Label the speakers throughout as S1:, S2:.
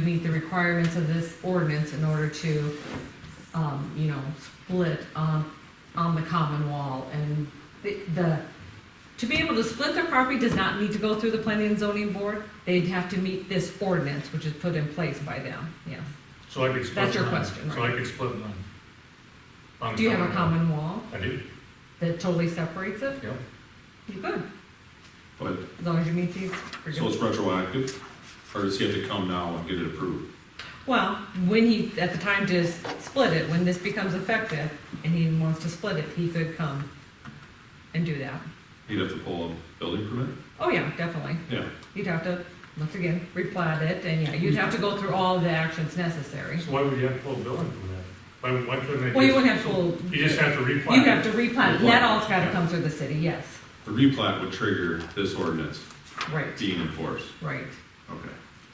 S1: meet the requirements of this ordinance in order to, um, you know, split on, on the common wall and the, the, to be able to split their property does not need to go through the planning and zoning board. They'd have to meet this ordinance, which is put in place by them, yes.
S2: So I could split.
S1: That's your
S2: mine.
S1: question,
S2: So I
S1: right?
S2: could split mine. On the
S1: Do you have a
S2: common
S1: common wall
S2: law. I do,
S1: that totally separates it?
S2: yep.
S1: You could,
S3: But,
S1: as long as you meet these. you're
S3: so
S1: good.
S3: it's retroactive, or does he have to come now and get it approved?
S1: Well, when he, at the time to s- split it, when this becomes effective and he wants to split it, he could come and do that.
S3: He'd have to pull a building permit?
S1: Oh, yeah, definitely.
S3: Yeah,
S1: You'd have to, once again, replat it, and yeah, you'd have to go through all the actions necessary.
S2: So why would you have to pull a building from that? Why, why couldn't they?
S1: Well, you
S2: just-
S1: wouldn't have full,
S2: You just
S1: you'd
S2: have to replat.
S1: have to replat, and that all's gotta come through the city, yes.
S3: the replat would trigger this ordinance
S1: Right,
S3: being enforced.
S1: right.
S3: Okay,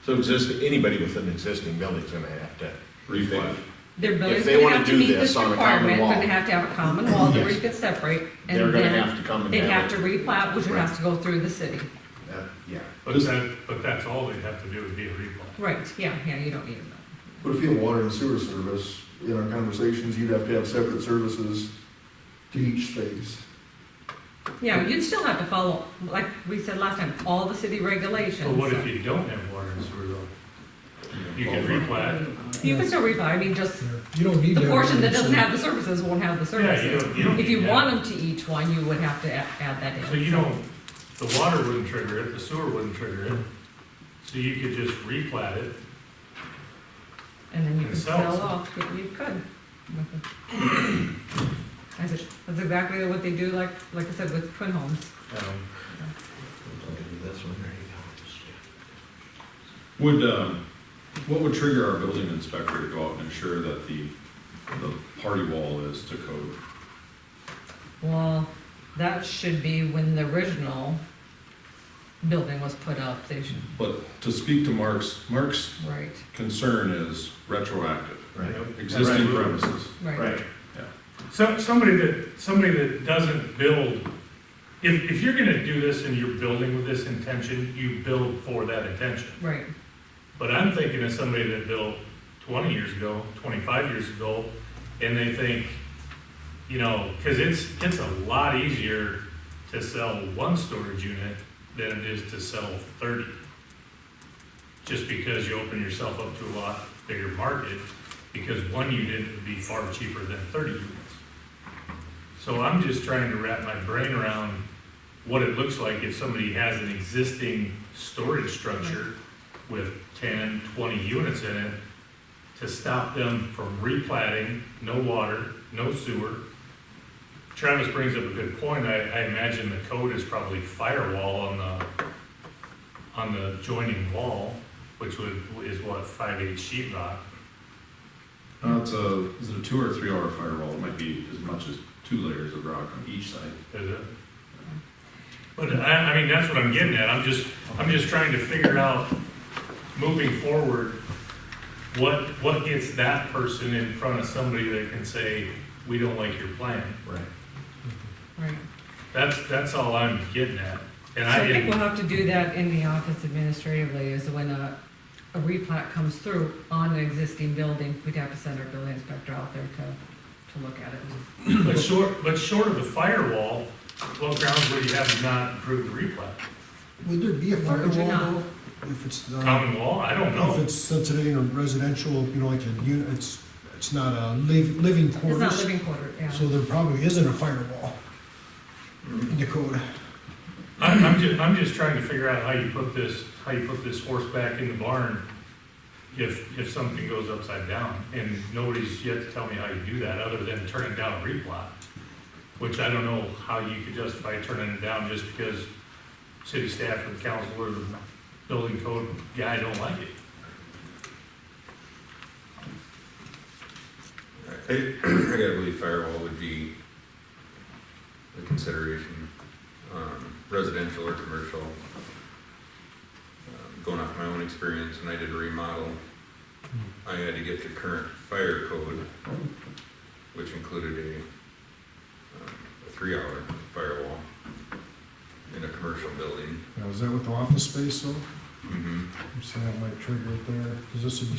S4: So exist, anybody with an existing building's gonna have to.
S3: replat.
S1: Their building's
S4: they
S1: gonna
S4: wanna
S1: have to
S4: do
S1: meet
S4: this
S1: this
S4: on a common
S1: requirement, but they
S4: wall.
S1: have to have a common wall that we
S4: Yes.
S1: could separate. and
S4: They're gonna
S1: then
S4: have to come and
S1: They'd have
S4: have
S1: to
S4: it.
S1: replat, which would
S4: Right.
S1: have to go through the city.
S4: That- Yeah.
S2: But that, but that's all they'd have to do would be a replat.
S1: Right, yeah, yeah, you don't need them.
S5: But if you have water and sewer service, in our conversations, you'd have to have separate services to each space.
S1: Yeah, you'd still have to follow, like we said last time, all the city regulations.
S2: But what if you don't have water and sewer though? You can replat.
S1: You can still replat, I mean, just
S6: You don't need.
S1: the
S6: to
S1: portion that doesn't have the services won't have the
S2: Yeah, you
S1: services.
S2: don't, you don't.
S1: If you
S2: need
S1: want them to each one, you would have to a- add that in.
S2: that. So you don't, the water wouldn't trigger it, the sewer wouldn't trigger it. So you could just replat it.
S1: And then you could
S2: Yourself.
S1: sell off, you you could. I said, That's exactly what they do, like, like I said, with twin homes.
S2: um,
S4: This one, there you
S3: Would, um, what would trigger our building inspector to go out and ensure that the, the party wall is to code?
S1: Well, that should be when the original building was put up, they should,
S3: But to speak to Mark's, Mark's
S1: right,
S3: concern is retroactive,
S2: you
S4: Right.
S2: know,
S3: existing
S2: right.
S3: premises.
S1: right.
S4: Right.
S2: So, somebody that, somebody that doesn't build, if, if you're gonna do this and you're building with this intention, you build for that intention.
S1: Right,
S2: But I'm thinking of somebody that built twenty years ago, twenty-five years ago, and they think, you know, cause it's, it's a lot easier to sell one storage unit than it is to sell thirty. Just because you open yourself up to a lot bigger market, because one unit would be far cheaper than thirty units. So I'm just trying to wrap my brain around what it looks like if somebody has an existing storage structure with 10, 20 units in it to stop them from replatting, no water, no sewer. Travis brings up a good point. I, I imagine the code is probably firewall on the, on the joining wall, which would, is what, 5/8 sheet rock?
S3: Uh, it's a, is it a two or three hour firewall? It might be as much as two layers of rock on each side.
S2: Is it? But I, I mean, that's what I'm getting at, I'm just, I'm just trying to figure out, moving forward, what, what gets that person in front of somebody that can say, we don't like your plan?
S4: Right.
S1: right.
S2: That's, that's all I'm getting at. And
S1: So I think
S2: I,
S1: we'll have to do that in the office administratively, is when a, a replat comes through on an existing building, we'd have to send our building inspector out there to, to look at it.
S2: but short, but short of the firewall, what grounds would you have not approved the replat?
S6: Would there be a
S1: Why would you
S6: firewall
S1: not?
S6: though, if it's, uh,
S2: Common law, I don't
S6: if
S2: know.
S6: it's sensitive or residential, you know, like a unit, it's, it's not a liv- living
S1: It's not
S6: quarters.
S1: living quarter, yeah.
S6: So there probably isn't a firewall in the code.
S2: I'm, I'm just, I'm just trying to figure out how you put this, how you put this horse back in the barn if, if something goes upside down. And nobody's yet to tell me how you do that, other than turning down a replot, which I don't know how you could justify turning it down just because city staff or the council or the building code guy don't like it.
S7: I, I gotta believe firewall would be the consideration, um, residential or commercial. Um, Going off my own experience, when I did a remodel, I had to get the current fire code, which included a, um, a three-hour firewall in a commercial building.
S6: Now, is that with the office space though?
S7: Mm-hmm.
S6: So that might trigger it there, because this would be